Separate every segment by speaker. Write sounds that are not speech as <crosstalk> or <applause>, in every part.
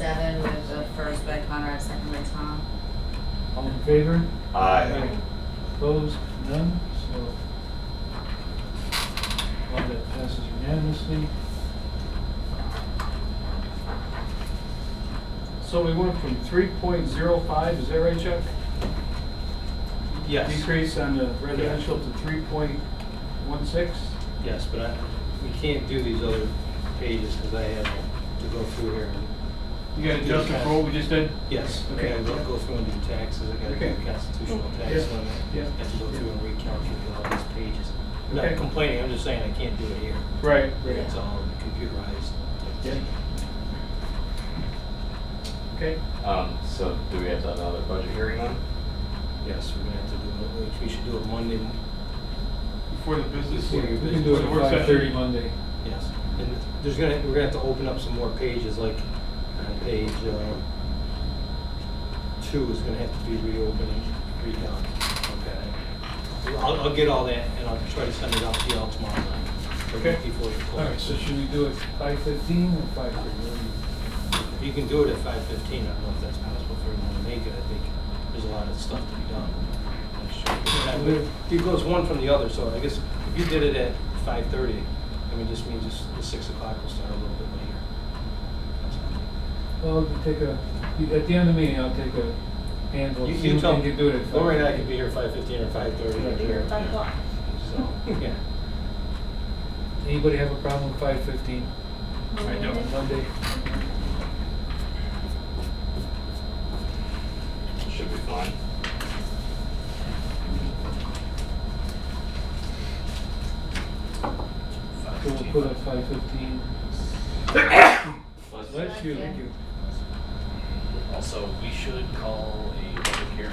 Speaker 1: Seven with the first by Conrad, second by Tom.
Speaker 2: All in favor?
Speaker 3: Aye.
Speaker 2: Opposed? None? So, one that passes unanimously. So we went from three point zero five, is that right, Chuck?
Speaker 4: Yes,
Speaker 2: Decrease on the residential to three point one six?
Speaker 4: yes, but I, we can't do these other pages because I have to go through here. and-
Speaker 5: You got to adjust it for what we just did?
Speaker 4: Yes, I
Speaker 5: Okay.
Speaker 4: gotta go go through and do taxes, I gotta do
Speaker 5: Okay.
Speaker 4: the constitutional
Speaker 2: Yeah.
Speaker 4: tax limit.
Speaker 2: Yeah.
Speaker 4: I have to go through and recalculate all these pages. I'm
Speaker 2: Okay.
Speaker 4: Not complaining, I'm just saying I can't do it here.
Speaker 2: Right,
Speaker 4: It's all computerized.
Speaker 2: Yeah. Okay,
Speaker 3: Um, so do we have to have another budget hearing then?
Speaker 4: Yes, we're gonna have to do it, we should do it Monday,
Speaker 5: Before the business.
Speaker 4: Before
Speaker 2: we
Speaker 4: your
Speaker 2: can do it
Speaker 5: So
Speaker 2: at
Speaker 5: we're set.
Speaker 2: five thirty Monday.
Speaker 4: yes. And there's gonna, we're gonna have to open up some more pages, like on page, uh, two is gonna have to be reopened, redone. Okay. I'll, I'll get all that and I'll try to send it out to y'all tomorrow night.
Speaker 2: Okay.
Speaker 4: Before you
Speaker 2: All right,
Speaker 4: close.
Speaker 2: so should we do it five fifteen or five thirty?
Speaker 4: You can do it at five fifteen, I don't know if that's possible for everyone to make it, I think there's a lot of stuff to be done.
Speaker 2: Yeah.
Speaker 4: But It goes one from the other, so I guess if you did it at five thirty, I mean, just means it's, the six o'clock will start a little bit later. That's all.
Speaker 2: Well, we take a, at the end of the meeting, I'll take a handful,
Speaker 4: You-
Speaker 2: see
Speaker 4: you
Speaker 2: if
Speaker 4: tell-
Speaker 2: we can do it at five.
Speaker 4: Lori and I could be here five fifteen or five thirty.
Speaker 2: We're here at
Speaker 1: five o'clock.
Speaker 4: So, yeah.
Speaker 2: Anybody have a problem with five fifteen
Speaker 5: I
Speaker 2: on
Speaker 5: don't.
Speaker 2: Monday?
Speaker 3: Should be fine.
Speaker 2: So we'll put up five fifteen.
Speaker 6: But
Speaker 2: Bless you.
Speaker 1: Thank you.
Speaker 6: also, we should call a public hearing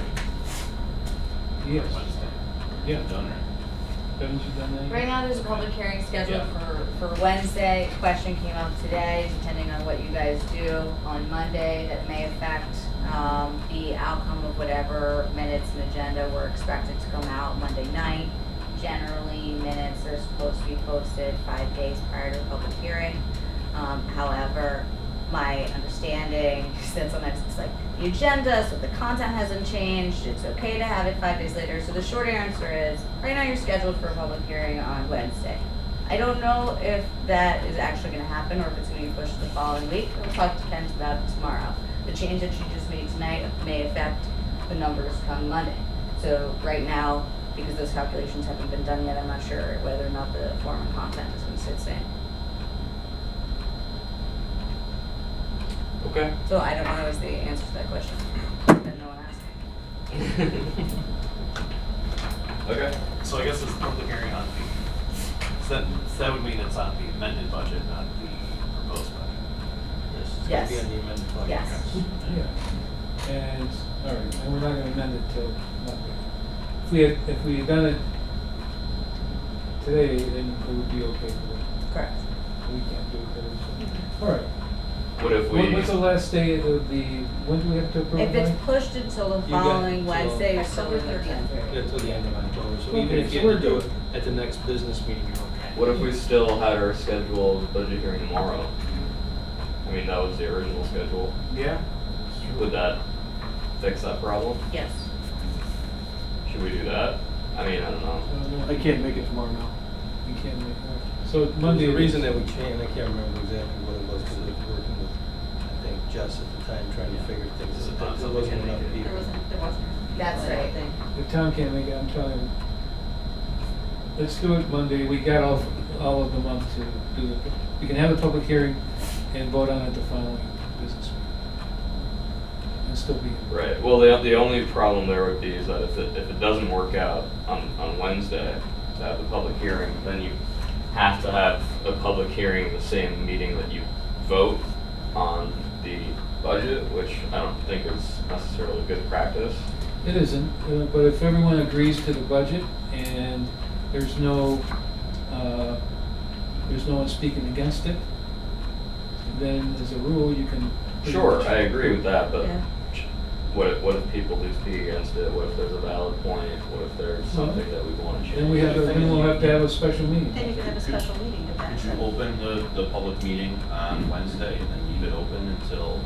Speaker 2: Yes,
Speaker 6: Wednesday.
Speaker 2: yeah,
Speaker 6: Done,
Speaker 2: haven't you done that? yet?
Speaker 1: Right now, there's a public hearing scheduled
Speaker 6: Yeah.
Speaker 1: for, for Wednesday. Question came up today, depending on what you guys do on Monday, that may affect, um, the outcome of whatever minutes and agenda were expected to come out Monday night. Generally, minutes are supposed to be posted five days prior to the public hearing. Um, however, my understanding, <laughs> since sometimes it's like the agenda, so the content hasn't changed, it's okay to have it five days later. So the short answer is, right now you're scheduled for a public hearing on Wednesday. I don't know if that is actually gonna happen or if it's gonna be pushed to the following week. We'll talk to Kent about it tomorrow. The change that you just made tonight may affect the numbers come Monday. So right now, because those calculations haven't been done yet, I'm not sure whether or not the form and content is gonna stay the same.
Speaker 3: Okay.
Speaker 1: So I don't know what was the answer to that question. Then no one asked.
Speaker 3: Okay.
Speaker 6: So I guess it's public hearing on the, so that, so that would mean it's on the amended budget, not the proposed budget.
Speaker 4: Yes. It's
Speaker 1: Yes.
Speaker 4: gonna be on the amended budget.
Speaker 1: Yes.
Speaker 2: Yeah, and, all right, and we're not gonna amend it till Monday. If we had, if we had done it today, then it would be okay, but
Speaker 1: Correct.
Speaker 2: we can't do it today, so. All right,
Speaker 3: What if we?
Speaker 2: When- when's the last day of the, when do we have to approve
Speaker 1: If it's
Speaker 2: by?
Speaker 1: pushed until the
Speaker 4: You got
Speaker 1: following
Speaker 4: till-
Speaker 1: Wednesday, you're still
Speaker 7: October
Speaker 1: within the
Speaker 7: 13th.
Speaker 1: time period.
Speaker 4: Until the end of October, so
Speaker 2: Okay,
Speaker 4: even if you
Speaker 2: so we're
Speaker 4: had to do it
Speaker 2: good.
Speaker 4: at the next business meeting, you're okay.
Speaker 3: What if we still had our scheduled budget hearing tomorrow? I mean, that was the original schedule.
Speaker 5: Yeah.
Speaker 3: Would that fix that problem?
Speaker 1: Yes.
Speaker 3: Should we do that? I mean, I don't know.
Speaker 2: Um,
Speaker 5: I can't make it tomorrow now.
Speaker 2: We Uh, can't make, all right. so Monday.
Speaker 4: Monday, the
Speaker 2: it
Speaker 4: reason
Speaker 2: is.
Speaker 4: that we can't, I can't remember exactly what it was, because I was working with, I think, Jess at the time, trying to figure things
Speaker 6: Is it
Speaker 4: out. There
Speaker 6: not something
Speaker 4: wasn't
Speaker 6: we
Speaker 4: enough
Speaker 6: can-
Speaker 4: people.
Speaker 7: There wasn't, there wasn't.
Speaker 1: That's
Speaker 7: I don't
Speaker 1: right.
Speaker 7: think.
Speaker 2: If Tom can't make it, I'm trying. to- Let's do it Monday. We got all, all of the month to do the, we can have the public hearing and vote on it the following business week. And still be.
Speaker 3: Right. Well, the, the only problem there would be is that if it, if it doesn't work out on, on Wednesday to have the public hearing, then you have to have a public hearing the same meeting that you vote on the budget, which I don't think is necessarily good practice.
Speaker 2: It isn't, uh, but if everyone agrees to the budget and there's no, uh, there's no one speaking against it, then as a rule, you can. pretty
Speaker 3: Sure,
Speaker 2: much-
Speaker 3: I agree with that, but
Speaker 1: Yeah.
Speaker 3: what if, what if people do speak against it? What if there's a valid point? What if there's something that we want to change?
Speaker 2: Then we have, to- then we'll have to have a special meeting.
Speaker 7: Then you could have a special meeting if
Speaker 6: Could
Speaker 7: that's.
Speaker 6: you open the, the public meeting on Wednesday and then leave it open until